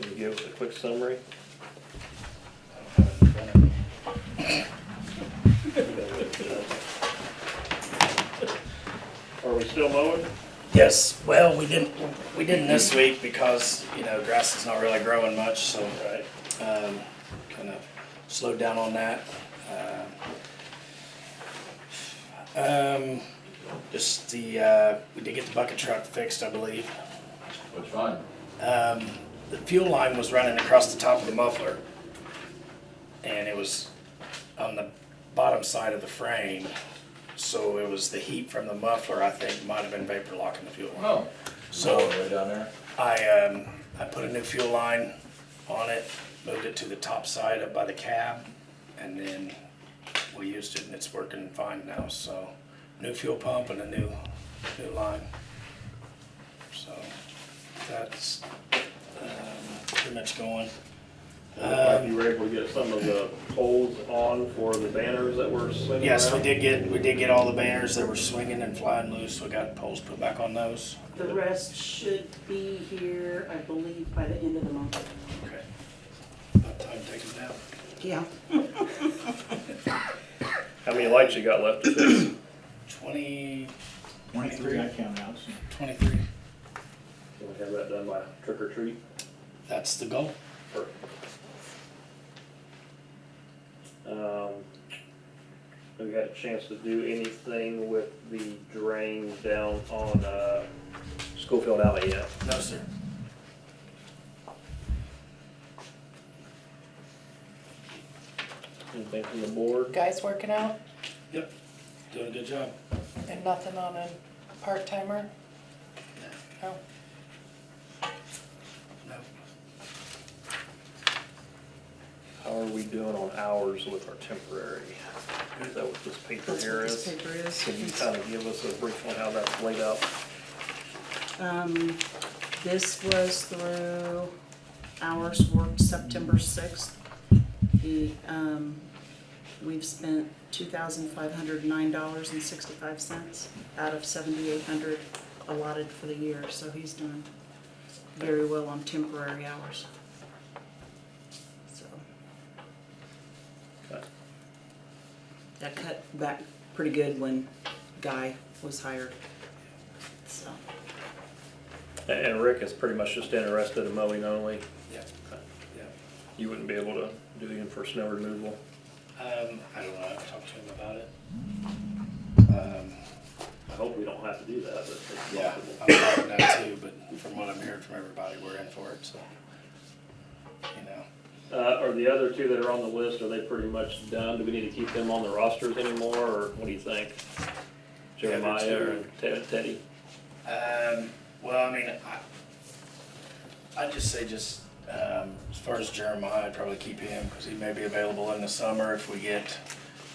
could give us a quick summary? Are we still mowing? Yes, well, we didn't, we didn't this week because, you know, grass is not really growing much, so, Right. um, kind of slowed down on that. Uh, Um, just the, uh, we did get the bucket truck fixed, I believe. Which one? Um, the fuel line was running across the top of the muffler. And it was on the bottom side of the frame, so it was the heat from the muffler, I think, might have been vapor locking the fuel line. Oh. So- Lower Way down there. I, um, I put a new fuel line on it, moved it to the top side up by the cab, and then we used it and it's working fine now, so. New fuel pump and a new, new line. So, that's, um, pretty much going. Uh, Like you were able to get some of the poles on for the banners that were swinging around? Yes, we did get, we did get all the banners that were swinging and flying loose, we got poles put back on those. The rest should be here, I believe, by the end of the month. Okay. About time to take them down. Yeah. How many lights you got left to fix? Twenty, Twenty-three, I count out, so. twenty-three, Can we have that done by trick or treat? that's the goal. Perfect. Um, Have you had a chance to do anything with the drain down on uh, Schofield Alley yet? No, sir. Anything from the board? Guys working out Yep, doing a good job. and nothing on a part timer? No. No. How are we doing on hours with our temporary? Is that what this paper here is? Can you kind of give us a brief on how that's laid out? Um, this was through hours worked September sixth. The, um, we've spent two thousand five hundred nine dollars and sixty-five cents out of seventy-eight hundred allotted for the year, so he's done very well on temporary hours. So. Okay. That cut back pretty good when Guy was hired, so. And- And Rick is pretty much just interested in mowing only. Yeah, yeah. You wouldn't be able to do him for snow removal. Um, I don't know, I've talked to him about it. Um, I hope we don't have to do that, but it's yeah, possible. I'm about that too, but from what I'm hearing from everybody, we're in for it, so. You know, Uh, are the other two that are on the list, are they pretty much done? Do we need to keep them on the rosters anymore, or what do you think? Yeah, they're Jeremiah or two. Te- Teddy? um, well, I mean, I, I'd just say just, um, as far as Jeremiah, I'd probably keep him, cause he may be available in the summer if we get,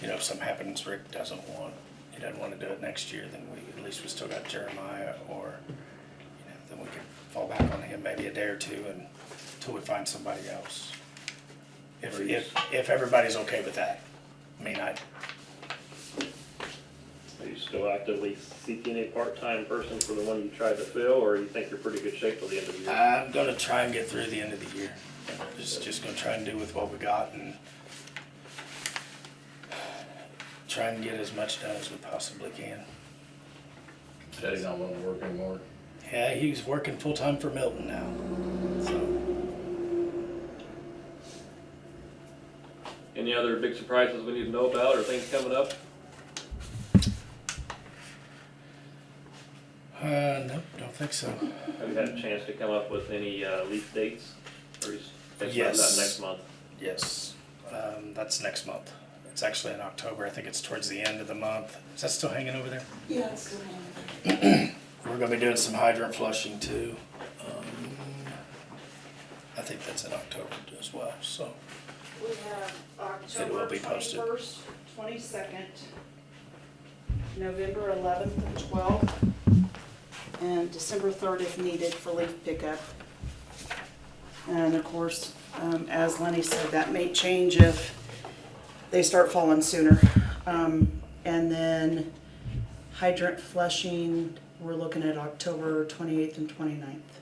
you know, if something happens, Rick doesn't want, he doesn't wanna do it next year, then we, at least we still got Jeremiah, or, you know, then we could fall back on him maybe a day or two and, until we find somebody else. If, if, if everybody's okay with that, I mean, I, Are you still actively seeking a part-time person for the one you tried to fill, or you think you're pretty good shape till the end of the year? I'm gonna try and get through the end of the year. Just, just gonna try and do with what we got and try and get as much done as we possibly can. Teddy's not wanting to work anymore. Yeah, he's working full-time for Milton now, so. Any other big surprises we need to know about, or things coming up? Uh, nope, don't think so. Have you had a chance to come up with any, uh, lease dates? Or you s- think about that Yes. next month? Yes, um, that's next month. It's actually in October, I think it's towards the end of the month. Is that still hanging over there? Yeah, it's good. We're gonna be doing some hydrant flushing too. Um, I think that's in October as well, so. We have It will October be posted. twenty-first, twenty-second, November eleventh and twelfth. And December third if needed for leaf pickup. And of course, um, as Lenny said, that may change if they start falling sooner. Um, and then hydrant flushing, we're looking at October twenty-eighth and 29th.